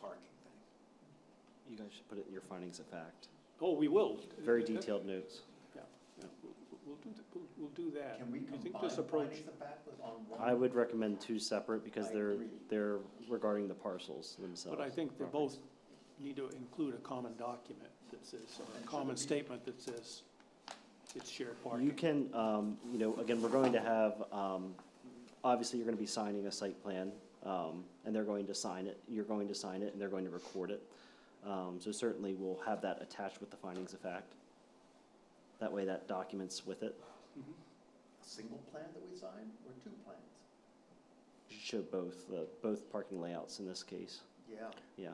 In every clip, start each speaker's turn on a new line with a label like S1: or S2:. S1: parking thing.
S2: You guys should put it in your findings of fact.
S1: Oh, we will.
S2: Very
S1: That-
S2: detailed notes.
S1: Yeah, yeah, we'll- we'll- we'll do, th- we'll- we'll do that.
S3: Can we
S1: You think
S3: combine
S1: this approach?
S3: findings of fact with on one?
S2: I would recommend two separate because
S3: I
S2: they're,
S3: agree.
S2: they're regarding the parcels themselves.
S1: But I think they
S2: properties.
S1: both need to include a common document that says, or
S3: And
S1: a
S3: should
S1: common
S3: it be-
S1: statement that says it's shared parking.
S2: You can, um, you know, again, we're going to have, um, obviously, you're gonna be signing a site plan, um, and they're going to sign it, you're going to sign it, and they're going to record it. Um, so certainly, we'll have that attached with the findings of fact. That way, that documents with it,
S1: Mhm.
S3: A Single plan that we sign or two plans?
S2: show both, the, both parking layouts in this case,
S3: Yeah.
S2: yeah.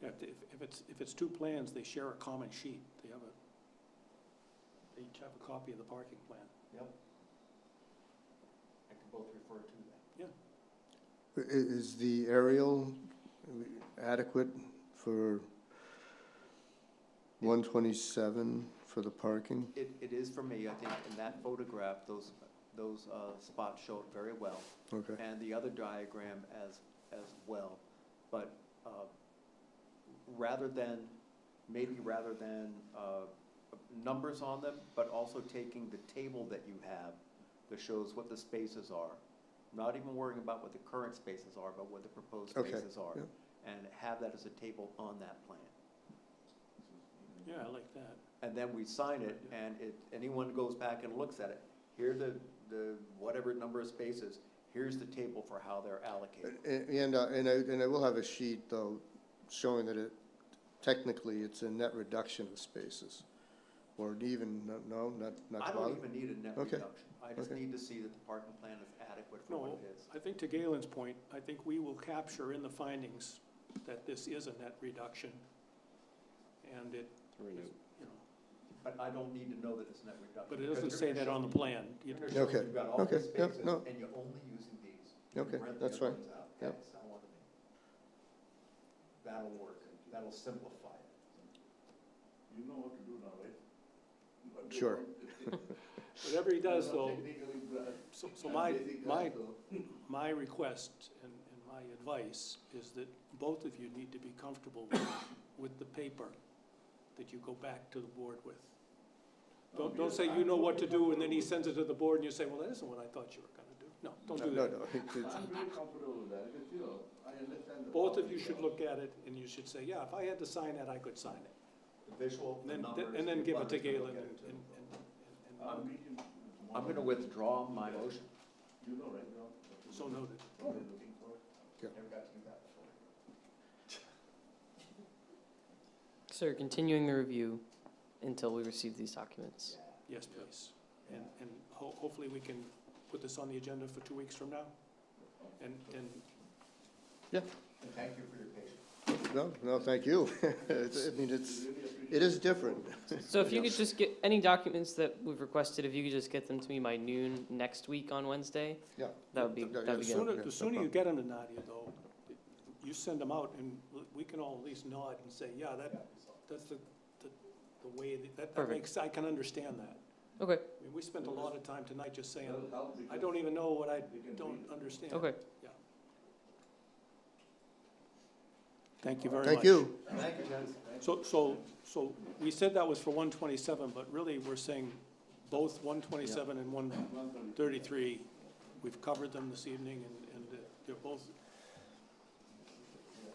S1: Yeah, If, if it's, if it's two plans, they share a common sheet. They have a, they each have a copy of the parking plan.
S3: Yep. I can both refer to that.
S4: I- Is the aerial adequate for one twenty-seven for the parking?
S3: It, it is for me, I think in that photograph, those, those uh, spots show it very well.
S4: Okay,
S3: and the other diagram as, as well. But uh, rather than, maybe rather than uh, numbers on them, but also taking the table that you have that shows what the spaces are, not even worrying about what the current spaces are, but what the proposed
S4: Okay,
S3: spaces are.
S4: yeah.
S3: And have that as a table on that plan. Mm-hmm.
S1: Yeah, I like that.
S3: And then we sign it, and if anyone goes back and looks at it, here the, the, whatever number of spaces, here's the table for how they're allocated.
S4: And, and uh, and I, and I will have a sheet though, showing that it, technically, it's a net reduction of spaces. Or even, no, no, not, not
S3: I
S4: to
S3: don't
S4: bother?
S3: even need a net
S4: Okay.
S3: reduction. I just
S4: Okay.
S3: need to see that the parking plan is adequate for what
S1: No,
S3: it is.
S1: I think to Galen's point, I think we will capture in the findings that this is a net reduction. And it, you know,
S3: But I don't need to know that it's net reduction.
S1: but it doesn't say that on the plan. You-
S3: You're gonna show
S4: Okay,
S3: you've got all these
S4: okay, yep,
S3: spaces,
S4: no.
S3: and you're only using these. You
S4: Okay,
S3: rent the
S4: that's
S3: other
S4: fine,
S3: ones out.
S4: yep.
S3: That's how I want it. That'll work. That'll simplify it.
S5: You know what to do now, right? But they
S4: Sure.
S5: don't-
S1: Whatever he does,
S5: they don't
S1: though,
S5: technically grasp.
S1: so, so my,
S5: They think
S1: my,
S5: that's all.
S1: my request and, and my advice is that both of you need to be comfortable with- with the paper that you go back to the board with. Don't, don't say you know what to do, and then he sends it to the board, and you say, well, that isn't what I thought you were gonna do. No, don't do
S4: No,
S1: that.
S4: no, it's- it's-
S5: I'm very comfortable with that, because, you know, I understand the.
S1: Both of
S5: process
S1: you should
S5: now.
S1: look at it, and you should say, yeah, if I had to sign that, I could sign it.
S3: The visual, the
S1: Then,
S3: numbers.
S1: th- and then
S3: the
S1: give it to
S3: others will
S1: Galen
S3: look at
S1: and,
S3: it too.
S1: and, and, and-
S5: I'm
S1: and,
S5: meeting
S3: I'm
S5: tomorrow.
S3: gonna withdraw my motion.
S5: You know, right now. what to
S1: so
S5: do.
S1: noted.
S5: What they're looking for.
S3: Never got to do that before.
S6: Sir, continuing the review until we receive these documents.
S1: Yes, please. And, and ho- hopefully we can put this on the agenda for two weeks from now. And, and
S3: And thank you for your patience.
S4: no, no, thank you. It's, I mean, it's, it is different.
S6: So if you could just get, any documents that we've requested, if you could just get them to me by noon next week on Wednesday?
S4: Yeah.
S6: That would be,
S4: Yeah,
S6: that'd
S4: yeah,
S6: be
S1: the
S6: good.
S1: sooner,
S4: yeah,
S1: the
S4: no
S1: sooner you
S4: problem.
S1: get them to Nadia, though, you send them out, and we can all at least nod and say, yeah, that, that's the, the, the way, that- that, that
S6: Perfect.
S1: makes, I can understand that.
S6: Okay,
S1: I mean, we spent a lot of time tonight just saying,
S5: That'll help
S1: I
S5: because
S1: don't even know what I
S5: we can
S1: don't
S5: read it.
S1: understand.
S6: okay.
S1: Thank you very much.
S4: Thank you.
S3: Thank you, gents.
S1: So, so, so we said that was for one twenty-seven, but really we're saying both one twenty-seven and one thirty-three. We've covered them this evening and, and they're both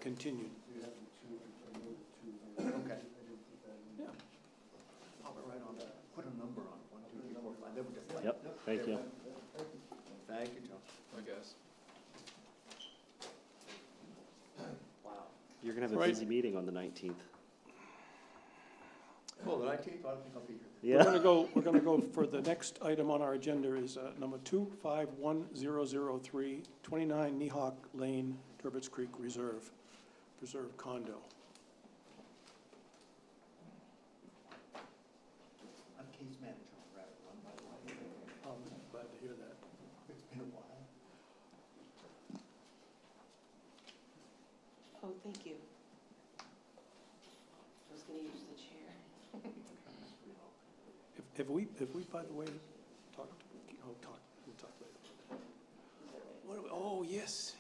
S1: continued.
S3: Okay.
S1: Yeah.
S3: Pop it right on there. Put a number on it, one, two, three, four, five, then we're just like.
S2: Yep, thank you.
S3: Thank you, John.
S5: I guess.
S3: Wow.
S2: You're gonna have a
S1: Right.
S2: busy meeting on the nineteenth.
S3: Cool, the nineteenth, I don't think I'll be here.
S1: We're
S2: Yeah.
S1: gonna go, we're gonna go for the next item on our agenda is uh, number two, five, one, zero, zero, three, twenty-nine Nehawk Lane, Turbot's Creek Reserve, Preserve Condo.
S3: I'm case manager on Rabbit Run, by the way.
S1: Um, Glad to hear that.
S3: It's been a while.
S7: Oh, thank you. I was gonna use the chair.
S1: Have- Have we, have we, by the way, talked, oh, talk, we'll talk later. What, do we- oh, yes,